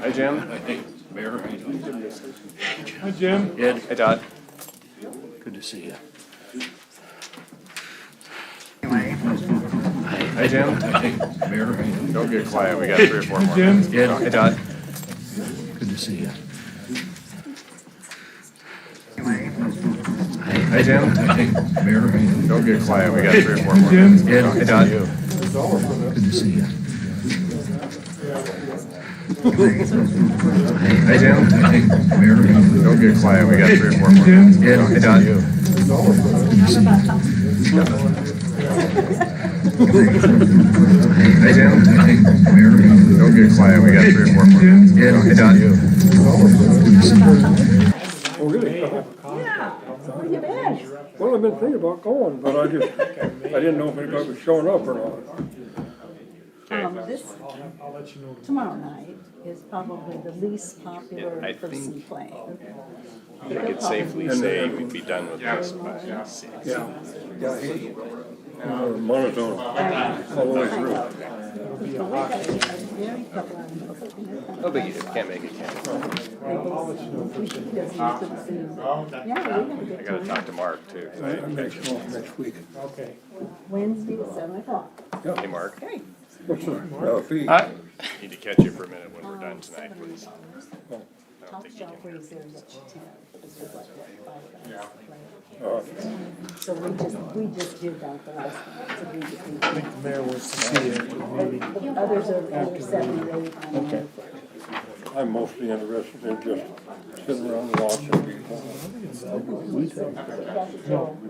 Hi, Jim. Mayor, how you doing? Hi, Jim. Ed, Hi, Todd. good to see you. Oh, Hi, Jim. Mayor, how you doing? Don't get quiet. We got three or four more. Jim. minutes. Hi, Todd. Good to see you. Hi, Jim. Mayor, how you doing? Don't get quiet. We got three or four more. Jim. minutes. Hi, Todd. Good to see you. Hi, Jim. Mayor, how you doing? Don't get quiet. We got three or four more. Jim. minutes. Hi, Todd. Hi, Jim. Mayor, how you doing? Don't get quiet. We got three or four more. minutes. Hi, Todd. Oh, really? Yeah. Well, I've been thinking about going, but I just, I didn't know if anybody was showing up or not. Um, this, tomorrow night is probably the least popular person playing. We could safely say we'd be done with this by six. Uh, Monotone, all the way through. But we got a very couple of them. No biggie. If you Can't make it. Can't. They both- we should get them to the same. Yeah, we had I a good gotta time. talk to Mark too. I'm next, next week. Wednesday at seven o'clock. Hey, Mark. What's the, uh, fee? Need to catch you for a minute when we're done tonight, please. Top shop was there at ten, this was like what, five bucks, like- So we just, we just did that the last one, so we just. I think the mayor wants to see it. Others are, are seven or eight. I don't know. I'm mostly interested in just sitting around and watching people. That's all.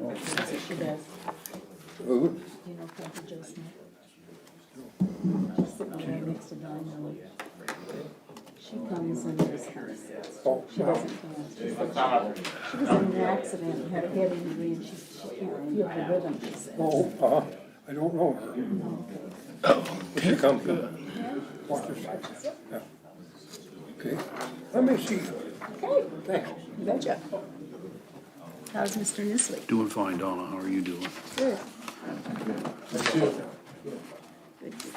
That's what she does. Who? You know, Kathy Jo Smith. She's sitting there next to Don Miller. She comes in this house. She doesn't come out. She said she- she was in an accident, and had head injury, and she, she can't feel the rhythm, she said. Oh, uh, I don't know her. But she comes in. Watch this. Yeah. Okay, let me see. Okay, Thanks. you betcha. How's Mr. Nisley? Doing fine, Donna, how are you doing? Good. Good, good,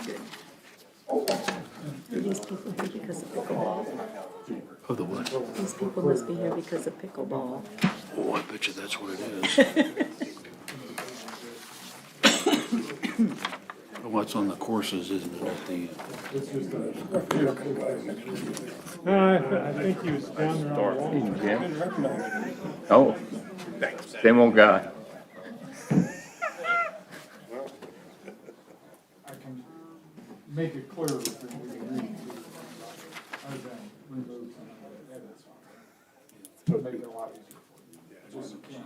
good. Oh, These people here because of pickleball. Oh, the what? These people must be here because of pickleball. Oh, I bet you that's what it is. What's on the courses, isn't it, at the, No, I, I think he was down there on the wall. Jim. Oh, same old guy. I can make it clearer. if we-